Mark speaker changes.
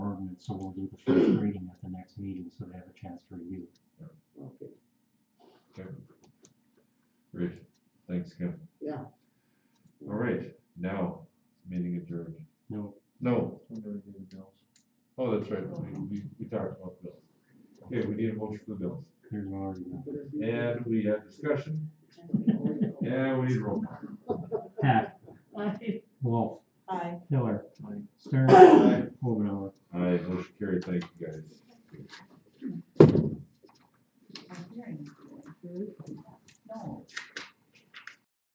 Speaker 1: so we'll do the first reading at the next meeting, so they have a chance to review.
Speaker 2: Okay,
Speaker 3: Okay. Great, thanks, Kim.
Speaker 2: yeah.
Speaker 3: All right, now, meeting adjourned.
Speaker 1: No,
Speaker 3: No. We're gonna do the bills. Oh, that's right, we, we, we talked about bills. Okay, we need a motion for the bills.
Speaker 1: there's already none.
Speaker 3: And we had discussion, and we need roll call.
Speaker 1: Hack,
Speaker 4: Aye.
Speaker 1: Wolf,
Speaker 4: Aye.
Speaker 1: Miller, Stern,
Speaker 3: Aye.
Speaker 1: Over and over.
Speaker 3: All right, motion carried, thank you guys.